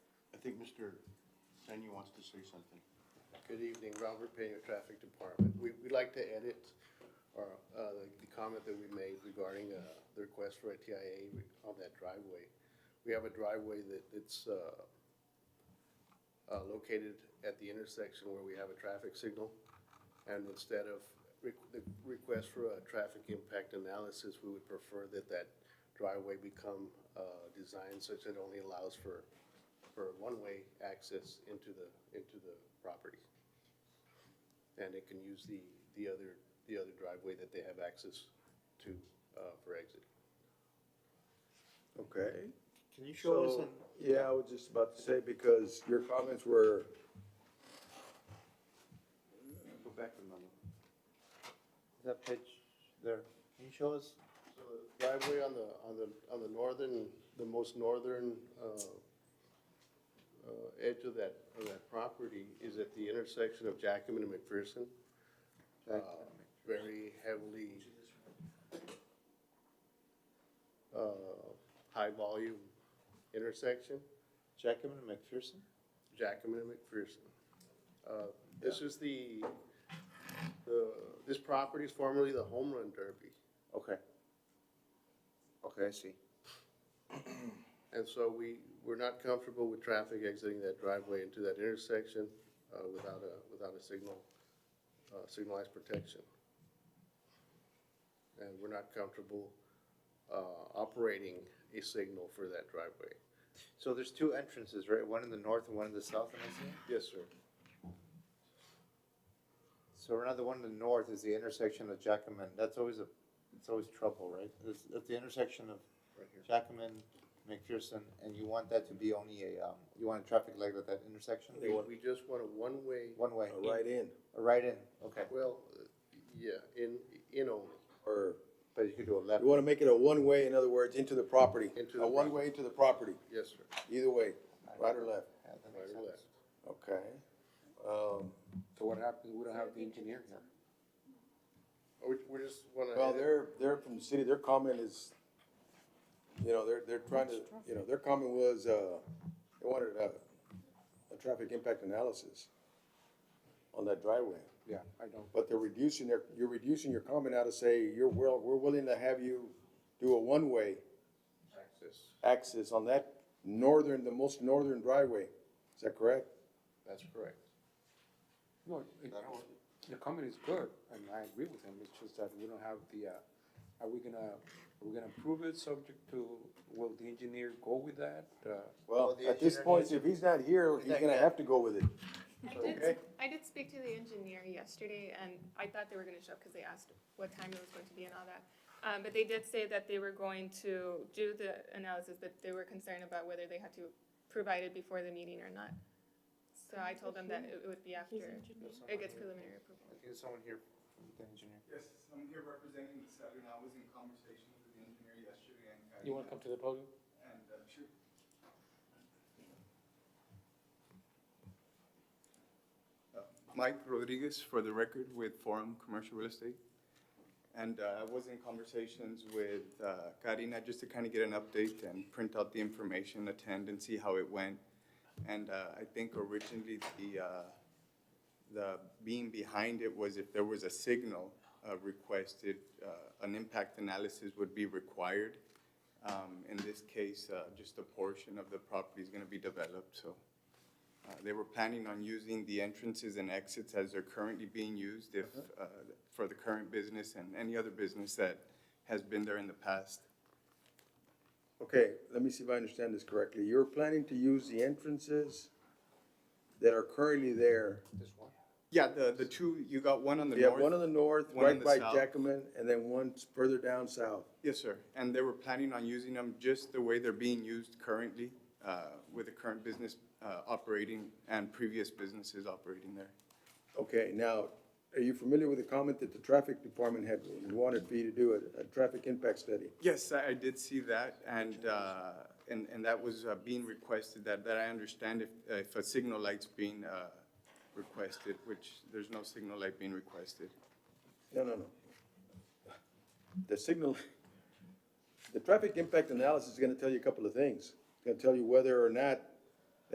think Mr. Senya wants to say something. Good evening, Robert Pena, Traffic Department. We, we'd like to edit our, uh, the comment that we made regarding, uh, the request for a TIA on that driveway. We have a driveway that it's, uh, uh, located at the intersection where we have a traffic signal. And instead of re- the request for a traffic impact analysis, we would prefer that that driveway become, uh, designed such that it only allows for, for one-way access into the, into the property. And it can use the, the other, the other driveway that they have access to, uh, for exit. Okay. Can you show us So, on, yeah, I was just about to say, because your comments were, Go back a moment. that page there, can you show us? So the Driveway on the, on the, on the northern, the most northern, uh, uh, edge of that, of that property is at the intersection of Jackman and McPherson. Uh, Very heavily, uh, high-volume intersection. Jackman and McPherson? Jackman and McPherson. Uh, This is the, the, this property is formerly the Home Run Derby. okay. Okay, I see. And so we, we're not comfortable with traffic exiting that driveway into that intersection uh, without a, without a signal, uh, signalized protection. And we're not comfortable uh, operating a signal for that driveway. So there's two entrances, right? One in the north and one in the south, am I seeing? Yes, sir. So another one in the north is the intersection of Jackman, that's always a, it's always trouble, right? It's at the intersection of Right here. Jackman, McPherson, and you want that to be only a, um, you want a traffic light at that intersection? We- We just want a one-way, One way, A uh, Right in, a right in, okay, well, uh, yeah, in, in only. or but you could do a left. you want to make it a one-way, in other words, into the property. Into the A one-way into the property, Yes, sir. either way, right or left. Yeah, that Right makes or sense. left. Okay. Um, So what happens, we don't have the engineer here. Or We, we just want to. well, they're, they're from the city, their comment is, you know, they're, they're trying to, you know, their comment was, uh, they wanted a, a traffic impact analysis on that driveway. Yeah, I don't. But they're reducing their, you're reducing your comment out to say, you're well, we're willing to have you do a one-way Access, access on that northern, the most northern driveway. Is that correct? that's correct. No, it- the comment is good, and I agree with him, it's just that we don't have the, uh, are we gonna, are we gonna approve it subject to, will the engineer go with that? Uh, Well, at this point, if he's not here, he's gonna have to go with it. I did, Okay. I did speak to the engineer yesterday, and I thought they were gonna show up, because they asked what time it was going to be and all that. Um, but they did say that they were going to do the analysis, but they were concerned about whether they had to provide it before the meeting or not. So I told them that it would be after it gets preliminary I approval. think there's someone here from the engineer. Yes, I'm here representing the Saturn. I was in conversations with the engineer yesterday and. You wanna come to the podium? And, uh, sure. Uh, Mike Rodriguez, for the record, with Forum Commercial Real Estate. And uh, I was in conversations with uh, Karina just to kind of get an update and print out the information, attend and see how it went. And uh, I think originally the, uh, the being behind it was if there was a signal uh, requested, uh, an impact analysis would be required. Um, In this case, uh, just a portion of the property is going to be developed, so. uh, They were planning on using the entrances and exits as they're currently being used if, uh, for the current business and any other business that has been there in the past. Okay, let me see if I understand this correctly. You're planning to use the entrances that are currently there. This one? Yeah, the, the two, you got one on the You have north. one on the north, one on right the by south. Jackman, and then one further down south. Yes, sir. And they were planning on using them just the way they're being used currently uh, with the current business uh, operating and previous businesses operating there. Okay, now, are you familiar with the comment that the traffic department had wanted for you to do a, a traffic impact study? Yes, I I did see that, and, uh, and and that was uh, being requested, that, that I understand if, if a signal light's being uh, requested, which there's no signal light being requested. No, no, no. The signal, the traffic impact analysis is gonna tell you a couple of things. It's gonna tell you whether or not